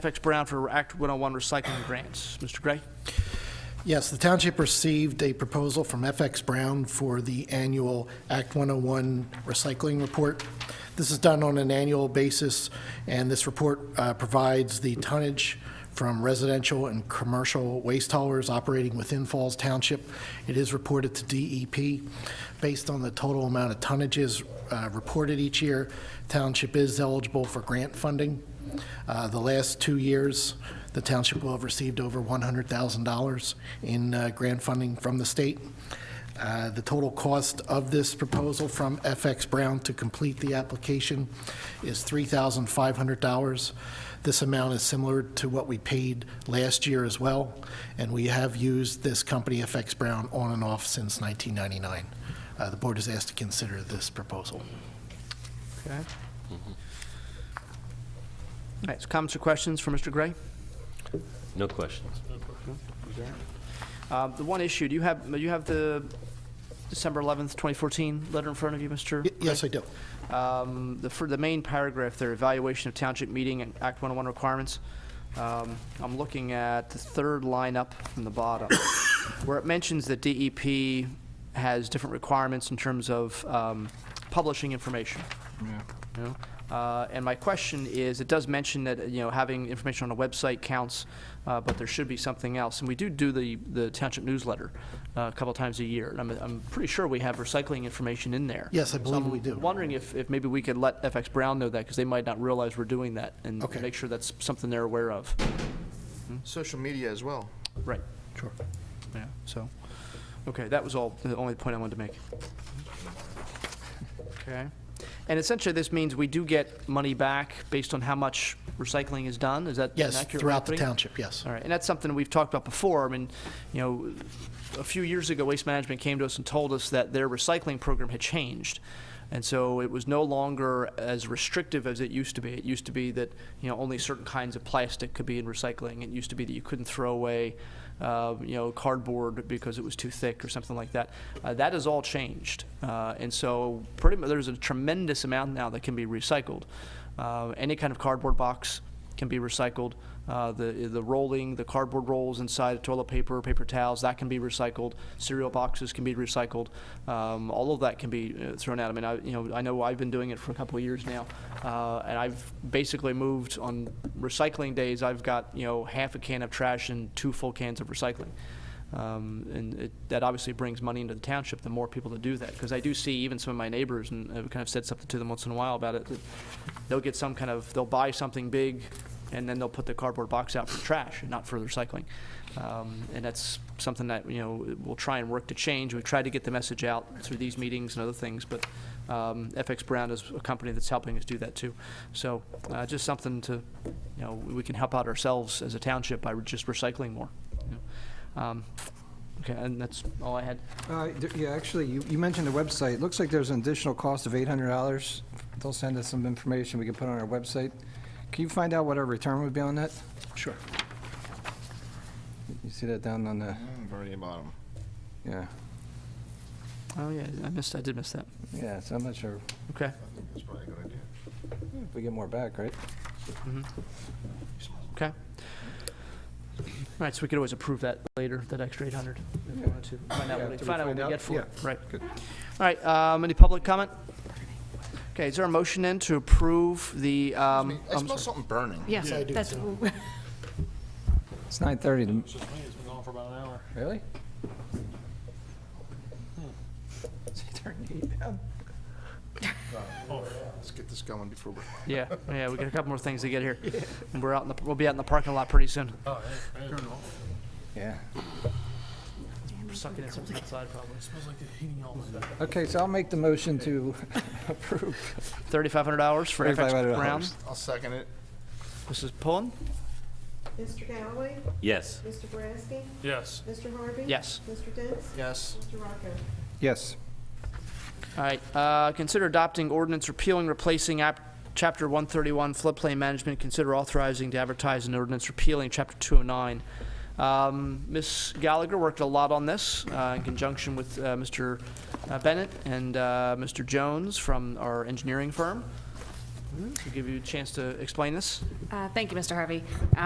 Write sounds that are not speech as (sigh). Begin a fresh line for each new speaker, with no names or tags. FX Brown for Act 101 recycling grants. Mr. Gray?
Yes, the township received a proposal from FX Brown for the annual Act 101 recycling report. This is done on an annual basis, and this report uh, provides the tonnage from residential and commercial waste haulers operating within Falls Township. It is reported to DEP based on the total amount of tonnages uh, reported each year. Township is eligible for grant funding. Uh, The last two years, the township will have received over $100,000 in uh, grant funding from the state. Uh, The total cost of this proposal from FX Brown to complete the application is $3,500. This amount is similar to what we paid last year as well, and we have used this company, FX Brown, on and off since 1999. Uh, The board is asked to consider this proposal.
Okay. All Mm-hmm. right, so comments or questions for Mr. Gray?
No questions.
Um, The one issue, do you have, you have the December 11th, 2014 letter in front of you, Mr.?
Y- Yes, I do.
Um, The, for the main paragraph there, evaluation of township meeting and Act 101 requirements. Um, I'm looking at the third line up from the bottom, (coughs) where it mentions that DEP has different requirements in terms of um, publishing information. You know? Uh, And my question is, it does mention that, you know, having information on a website counts, uh, but there should be something else. And we do do the, the township newsletter uh, a couple times a year, and I'm, I'm pretty sure we have recycling information in there.
Yes, I
So
believe
I'm
we do.
Wondering if, if maybe we could let FX Brown know that, because they might not realize we're doing that, and
Okay.
make sure that's something they're aware of.
Social media as well.
Right.
Sure.
Yeah, so, okay, that was all, the only point I wanted to make. Okay. And essentially, this means we do get money back based on how much recycling is done, is that an
Yes,
accurate
throughout the
opening?
township, yes.
All right, and that's something we've talked about before. I mean, you know, a few years ago, Waste Management came to us and told us that their recycling program had changed. And so it was no longer as restrictive as it used to be. It used to be that, you know, only certain kinds of plastic could be in recycling. It used to be that you couldn't throw away, uh, you know, cardboard because it was too thick or something like that. Uh, that has all changed. Uh, and so pretty much there's a tremendous amount now that can be recycled. Uh, any kind of cardboard box, can be recycled. Uh, the the rolling, the cardboard rolls inside of toilet paper, paper towels, that can be recycled. Cereal boxes can be recycled. Um, all of that can be uh, thrown out. I mean, I you know I know I've been doing it for a couple of years now, uh, and I've basically moved on recycling days. I've got you know half a can of trash and two full cans of recycling. Um, and it, that obviously brings money into the township, the more people that do that. Because I do see even some of my neighbors, and I've kind of said something to them once in a while about it, that they'll get some kind of, they'll buy something big, and then they'll put the cardboard box out for trash and not for recycling. Um, and that's something that, you know, we'll try and work to change. We've tried to get the message out through these meetings and other things, but um, FX Brown is a company that's helping us do that too. So uh, just something to, you know, we can help out ourselves as a township by just recycling more. you know. Um, Okay, and that's all I had.
Uh, th- Yeah, actually, you you mentioned the website. Looks like there's an additional cost of $800. They'll send us some information we can put on our website. Can you find out what our return would be on that?
Sure.
You see that down on the,
Mm, Very bottom.
yeah,
Oh, yeah, I missed, I did miss that.
yeah, so I'm not sure
Okay,
That's probably a good idea.
if we get more back, right?
okay. All right, so we could always approve that later, that extra 800, if we wanted to, find out what,
Yeah, after
we-
we
find out what
find
we
out,
get for it. Right.
good.
All right, um, any public comment? Okay, is there a motion then to approve the, um,
I
I'm
smell
sorry.
something burning.
Yes,
I do
that's,
It's 9:30.
It's just me, it's been on for about an hour.
Really? Is it turning heat down?
Let's get this going before we
yeah, yeah, we got a couple more things to get here. And we're out in the, we'll be out in the parking lot pretty soon.
Yeah.
We're Sucking in something outside probably.
Smells like the heating element.
Okay, so I'll make the motion to approve.
$3,500 for FX
$3,500.
Brown.
I'll second it.
Mrs. Pullen?
Mr. Galloway?
Yes.
Mr. Boraski?
Yes.
Mr. Harvey?
Yes.
Mr. Dents?
Yes.
Mr. Rocco?
Yes.
All right, uh, consider adopting ordinance repealing, replacing app, chapter one thirty-one floodplain management. Consider authorizing to advertise an ordinance repealing chapter two oh nine. Um, Ms. Gallagher worked a lot on this, uh, in conjunction with, uh, Mr. Bennett and, uh, Mr. Jones from our engineering firm.
We'll give you a chance to explain this.
Uh, Thank you, Mr. Harvey.